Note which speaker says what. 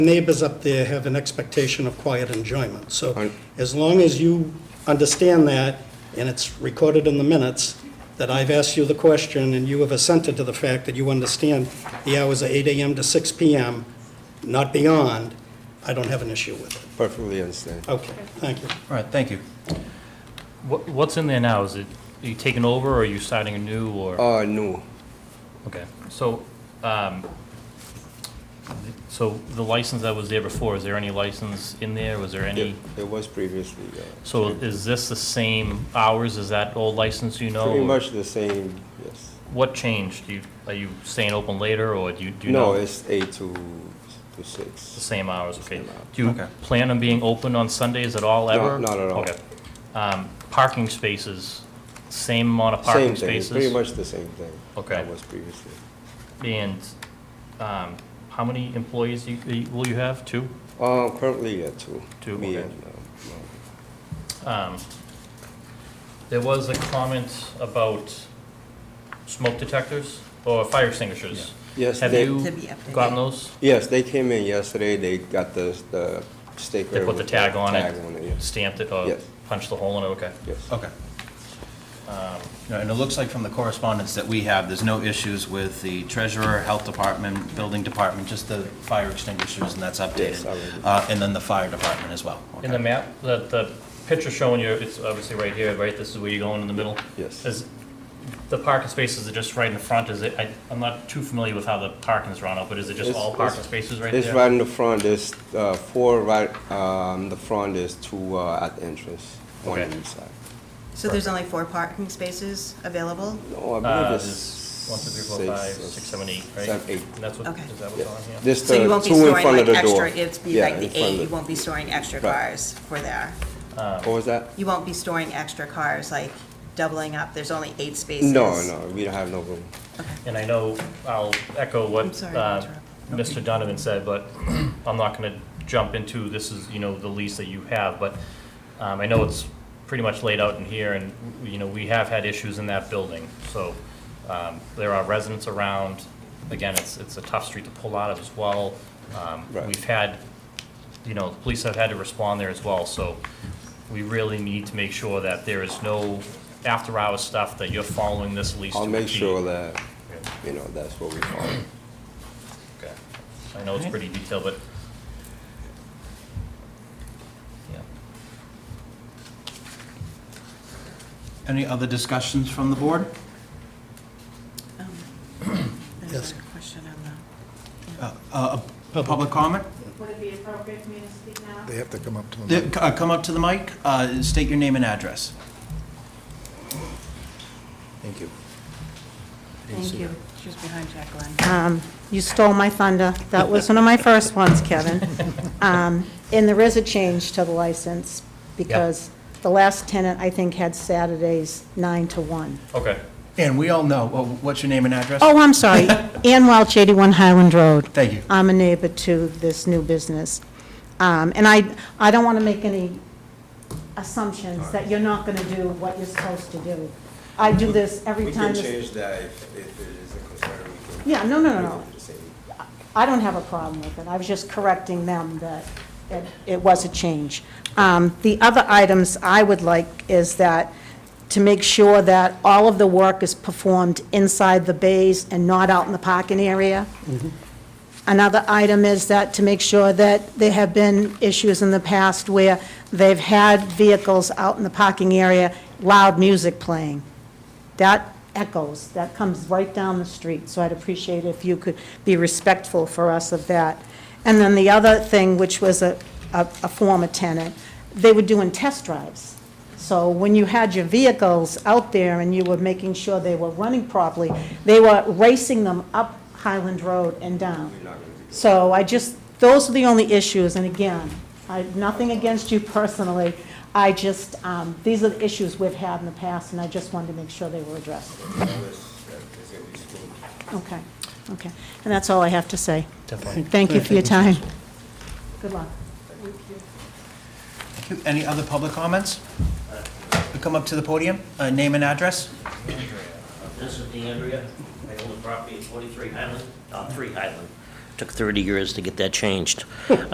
Speaker 1: neighbors up there have an expectation of quiet enjoyment. So
Speaker 2: Un-
Speaker 1: as long as you understand that, and it's recorded in the minutes, that I've asked you the question and you have assented to the fact that you understand the hours are 8 AM to 6 PM, not beyond, I don't have an issue with it.
Speaker 2: Perfectly understand.
Speaker 1: Okay, thank you.
Speaker 3: All right, thank you.
Speaker 4: What, what's in there now? Is it, are you taking over, or are you starting anew, or?
Speaker 2: Uh, no,
Speaker 4: Okay, so, um, so the license that was there before, is there any license in there? Was there any?
Speaker 2: it it was previously, uh,
Speaker 4: So is this the same hours as that old license, you know?
Speaker 2: pretty
Speaker 4: or
Speaker 2: much the same, yes.
Speaker 4: What changed? Do you, are you staying open later, or do you, do you know?
Speaker 2: No, it's eight to, to
Speaker 4: The
Speaker 2: six.
Speaker 4: same hours, okay.
Speaker 2: Same hours.
Speaker 4: Do you
Speaker 3: Okay.
Speaker 4: plan on being open on Sundays at all,
Speaker 2: No,
Speaker 4: ever?
Speaker 2: not at all.
Speaker 4: Okay. Um, Parking spaces, same amount of
Speaker 2: Same
Speaker 4: parking
Speaker 2: thing, it's
Speaker 4: spaces?
Speaker 2: pretty much the same thing.
Speaker 4: Okay.
Speaker 2: That was previously.
Speaker 4: And um, how many employees you- you- will you have? Two?
Speaker 2: Uh, currently, yeah, two.
Speaker 4: Two,
Speaker 2: Me
Speaker 4: okay.
Speaker 2: and, uh, my-
Speaker 4: Um, There was a comment about smoke detectors or fire extinguishers.
Speaker 2: Yes,
Speaker 4: Have
Speaker 2: they-
Speaker 4: you
Speaker 5: To be updated.
Speaker 4: gotten those?
Speaker 2: Yes, they came in yesterday, they got the, the sticker.
Speaker 4: They put the
Speaker 2: with
Speaker 4: tag on it? Oh,
Speaker 2: Tag on it, yes,
Speaker 4: Stamped it or
Speaker 2: Yes.
Speaker 4: punched the hole in it? Okay.
Speaker 2: yes.
Speaker 3: Okay. No, And it looks like from the correspondence that we have, there's no issues with the treasurer, health department, building department, just the fire extinguishers, and that's
Speaker 2: Yes,
Speaker 3: updated.
Speaker 2: I will.
Speaker 3: Uh, And then the fire department as well.
Speaker 4: In the
Speaker 3: Okay.
Speaker 4: map, the, the picture showing you, it's obviously right here, right? This is where you're going in the middle?
Speaker 2: Yes.
Speaker 4: Is, the parking spaces are just right in the front, is it, I, I'm not too familiar with how the parking is run out, but is it just
Speaker 2: It's-
Speaker 4: all
Speaker 2: it's-
Speaker 4: parking spaces right there?
Speaker 2: It's right in the front, there's, uh, four right, um, the front is two, uh, at the entrance, one
Speaker 4: Okay.
Speaker 2: on each side.
Speaker 5: So there's only four parking spaces available?
Speaker 2: No, I
Speaker 4: Uh,
Speaker 2: believe it's.
Speaker 4: there's one, two, three, four, five,
Speaker 2: or
Speaker 4: six, seven, eight, right?
Speaker 2: Seven, eight.
Speaker 4: And that's what,
Speaker 5: Okay.
Speaker 4: is that
Speaker 2: Yes.
Speaker 4: what's on here?
Speaker 2: Just
Speaker 5: So you
Speaker 2: the
Speaker 5: won't be
Speaker 2: two in
Speaker 5: storing
Speaker 2: front
Speaker 5: like
Speaker 2: of the door.
Speaker 5: extra, it's be
Speaker 2: Yeah,
Speaker 5: like
Speaker 2: in
Speaker 5: the
Speaker 2: front of
Speaker 5: eight,
Speaker 2: the-
Speaker 5: you won't be storing extra
Speaker 2: Right.
Speaker 5: cars for there.
Speaker 2: What
Speaker 4: Oh,
Speaker 2: was that?
Speaker 5: You won't be storing extra cars, like doubling up, there's only eight spaces.
Speaker 2: No, no, we don't have no room.
Speaker 4: And I know, I'll echo
Speaker 5: I'm
Speaker 4: what
Speaker 5: sorry to
Speaker 4: uh,
Speaker 5: interrupt.
Speaker 4: Mr. Donovan said, but I'm not going to jump into, this is, you know, the lease that you have, but um, I know it's pretty much laid out in here, and, you know, we have had issues in that building, so um, there are residents around. Again, it's, it's a tough street to pull out of as well. Um,
Speaker 2: Right.
Speaker 4: We've had, you know, the police have had to respond there as well, so we really need to make sure that there is no after-hours stuff, that you're following this lease
Speaker 2: I'll
Speaker 4: to a
Speaker 2: make
Speaker 4: T.
Speaker 2: sure that,
Speaker 4: Yeah.
Speaker 2: you know, that's what we follow.
Speaker 4: Okay. I know it's pretty detailed, but. Yeah.
Speaker 3: Any other discussions from the board?
Speaker 5: Um,
Speaker 1: Yes.
Speaker 5: There's a question on the,
Speaker 3: Uh, uh, Public comment?
Speaker 6: Would it be appropriate for me to speak now?
Speaker 7: They have to come up to
Speaker 3: The-
Speaker 7: them.
Speaker 3: uh, Come up to the mic, uh, state your name and address.
Speaker 2: Thank you.
Speaker 5: thank you, she's behind Jacqueline.
Speaker 8: Um, You stole my thunder. That was one of my first ones, Kevin. Um, And there is a change to the license, because the last tenant, I think, had Saturdays 9 to 1.
Speaker 4: Okay.
Speaker 3: And we all know, well, what's your name and address?
Speaker 8: Oh, I'm sorry, Ann Welch, 81 Highland Road.
Speaker 3: Thank you.
Speaker 8: I'm a neighbor to this new business. Um, And I, I don't want to make any assumptions that you're not going to do what you're supposed to do. I do this every
Speaker 2: We can
Speaker 8: time. this-
Speaker 2: change that if, if it is a concern. we can-
Speaker 8: Yeah, no, no, no,
Speaker 2: we
Speaker 8: no.
Speaker 2: can do the same.
Speaker 8: I don't have a problem with it. I was just correcting them that it- it was a change. Um, The other items I would like is that, to make sure that all of the work is performed inside the bays and not out in the parking area. Another item is that, to make sure that there have been issues in the past where they've had vehicles out in the parking area, loud music playing. That echoes, that comes right down the street, so I'd appreciate if you could be respectful for us of that. And then the other thing, which was a, a a former tenant, they were doing test drives. So when you had your vehicles out there and you were making sure they were running properly, they were racing them up Highland Road and down. So I just, those are the only issues, and again, I, nothing against you personally. I just, um, these are the issues we've had in the past, and I just wanted to make sure they were addressed. Okay, okay. And that's all I have to say. Definitely. Thank you for your time. Good luck.
Speaker 3: Thank you. Any other public comments? Come up to the podium, uh, name and address.
Speaker 9: This is DeAndrea. I own the property at 43 Highland, uh, 3 Highland, Took 30 years to get that changed.